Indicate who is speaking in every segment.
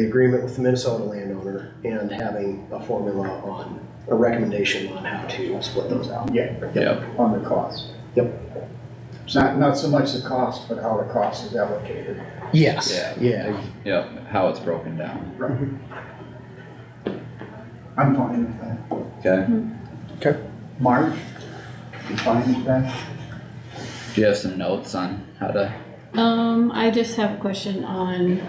Speaker 1: the agreement with the Minnesota landowner and having a formula on, a recommendation on how to split those out.
Speaker 2: Yep.
Speaker 3: on the cost.
Speaker 1: Yep.
Speaker 3: It's not, not so much the cost, but how the cost is allocated.
Speaker 1: Yes,
Speaker 2: Yeah.
Speaker 1: yeah.
Speaker 2: Yep, how it's broken down,
Speaker 1: Mm-hmm.
Speaker 3: I'm fine with that.
Speaker 2: okay?
Speaker 3: Marge, you fine with that?
Speaker 2: Do you have some notes on how to,
Speaker 4: Um, I just have a question on,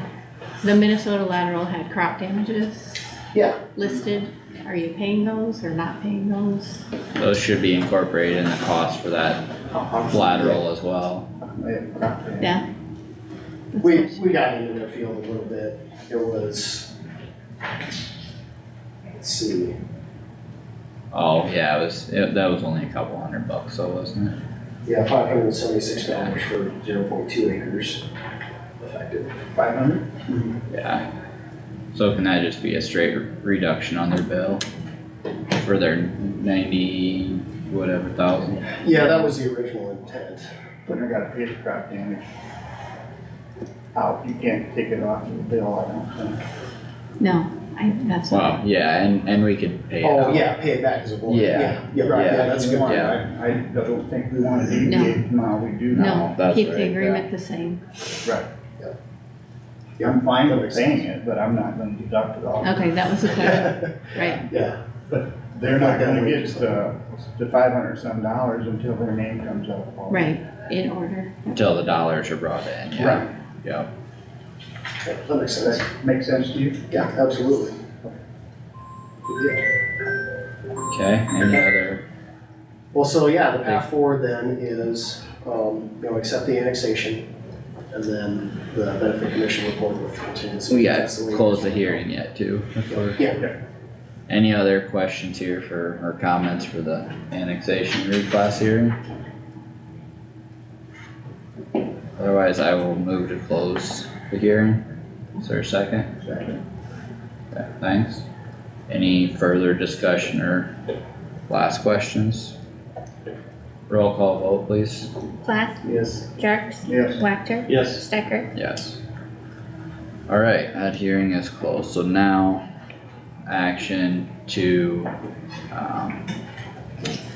Speaker 4: the Minnesota lateral had crop damages
Speaker 3: Yeah.
Speaker 4: listed. Are you paying those or not paying those?
Speaker 2: those should be incorporated in the cost for that lateral as well.
Speaker 3: Yeah.
Speaker 4: Yeah? That's
Speaker 1: We,
Speaker 4: what-
Speaker 1: we got into their field a little bit, it was, let's see,
Speaker 2: Oh, yeah, it was, it- that was only a couple hundred bucks, so wasn't it?
Speaker 1: yeah, five hundred and seventy-six dollars for zero point two acres effective.
Speaker 3: Five hundred?
Speaker 2: Yeah. So can that just be a straight reduction on their bill? For their ninety, whatever thousand?
Speaker 1: Yeah, that was the original intent.
Speaker 3: But I gotta pay the crop damage. Out, you can't take it off your bill, I don't think.
Speaker 4: No, I, that's what,
Speaker 2: Wow, yeah, and, and we could pay it
Speaker 1: Oh,
Speaker 2: out.
Speaker 1: yeah, pay it back as a board.
Speaker 2: Yeah.
Speaker 1: Yeah, right, yeah, that's
Speaker 3: We
Speaker 1: good.
Speaker 3: want-
Speaker 2: Yeah.
Speaker 3: I, I don't think we wanna deviate from how we do now.
Speaker 4: no,
Speaker 2: that's
Speaker 4: keep
Speaker 2: right, yeah.
Speaker 4: the agreement the same.
Speaker 3: Right.
Speaker 1: Yep.
Speaker 3: Yeah, I'm fine with paying it, but I'm not gonna deduct it all.
Speaker 4: Okay, that was the question, right?
Speaker 1: Yeah,
Speaker 3: They're not gonna get the, the five hundred some dollars until their name comes up.
Speaker 4: Right, in order.
Speaker 2: Until the dollars are brought in, yeah,
Speaker 3: Right,
Speaker 2: yeah.
Speaker 1: that that makes sense.
Speaker 3: does that make sense to you?
Speaker 1: Yeah, absolutely. Yeah.
Speaker 2: Okay, any other,
Speaker 1: Well, so yeah, the path forward then is, um, you know, accept the annexation and then the benefit commission report with contingency.
Speaker 2: so we got
Speaker 1: That's the way-
Speaker 2: close the hearing yet too. before-
Speaker 1: Yeah.
Speaker 2: Any other questions here for, or comments for the annexation reclass hearing? Otherwise, I will move to close the hearing. Is there a second? Okay, thanks. Any further discussion or last questions? Roll call vote, please.
Speaker 5: Plath,
Speaker 3: Yes.
Speaker 5: Jerks,
Speaker 3: Yes,
Speaker 5: Wactor,
Speaker 1: Yes.
Speaker 5: Stecker,
Speaker 2: Yes. Alright, that hearing is closed, so now action to, um,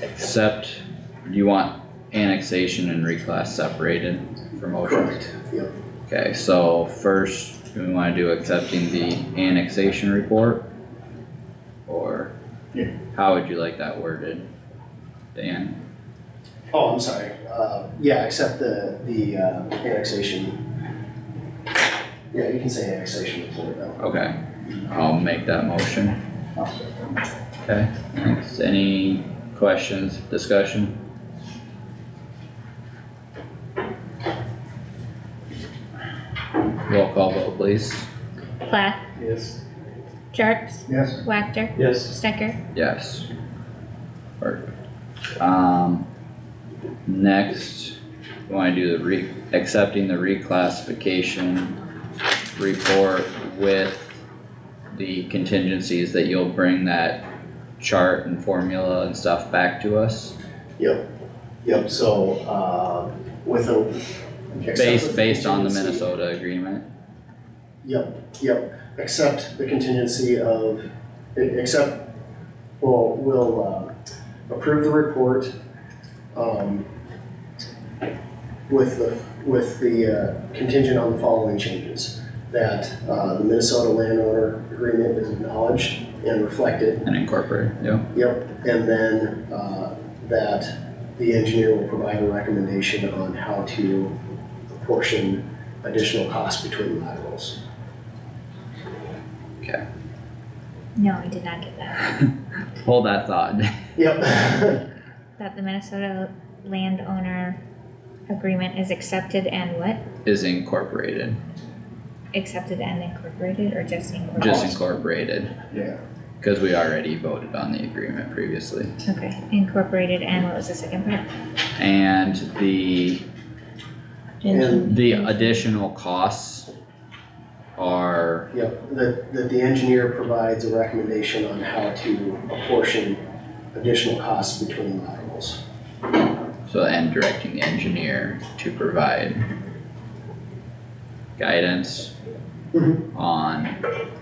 Speaker 2: accept, you want annexation and reclass separated for motion?
Speaker 1: Correct, yep.
Speaker 2: Okay, so first, do we wanna do accepting the annexation report? Or?
Speaker 3: Yeah.
Speaker 2: How would you like that worded? Dan,
Speaker 1: Oh, I'm sorry. Uh, yeah, accept the, the, uh, annexation. Yeah, you can say annexation report now.
Speaker 2: okay, I'll make that motion.
Speaker 3: I'll second.
Speaker 2: Okay, thanks. Any questions, discussion? Roll call vote, please.
Speaker 5: Plath,
Speaker 1: Yes.
Speaker 5: Jerks,
Speaker 3: yes,
Speaker 5: Wactor,
Speaker 1: Yes.
Speaker 5: Stecker,
Speaker 2: Yes. Perfect. Um, next, we wanna do the re, accepting the reclassification report with the contingencies that you'll bring that chart and formula and stuff back to us.
Speaker 1: Yep, yep, so, uh, with a. accept
Speaker 2: Based,
Speaker 1: the
Speaker 2: based on the
Speaker 1: contingency-
Speaker 2: Minnesota agreement,
Speaker 1: Yep, yep, except the contingency of, except, well, we'll, uh, approve the report, um, with the, with the uh, contingent on the following changes. That, uh, the Minnesota landowner agreement is acknowledged and reflected,
Speaker 2: and incorporate, yeah,
Speaker 1: Yep, and then, uh, that the engineer will provide a recommendation on how to apportion additional costs between laterals.
Speaker 5: no, I did not get that.
Speaker 2: hold that thought.
Speaker 1: Yep,
Speaker 5: That the Minnesota landowner agreement is accepted and what?
Speaker 2: Is incorporated,
Speaker 5: Accepted and incorporated or just
Speaker 2: just
Speaker 5: incorporated?
Speaker 2: incorporated,
Speaker 3: yeah.
Speaker 2: cause we already voted on the agreement previously.
Speaker 5: Okay, incorporated and what was the second part?
Speaker 2: And the,
Speaker 1: and,
Speaker 2: the additional costs are,
Speaker 1: yep, that, that the engineer provides a recommendation on how to apportion additional costs between laterals.
Speaker 2: so, and directing the engineer to provide guidance
Speaker 1: Mhm.
Speaker 2: on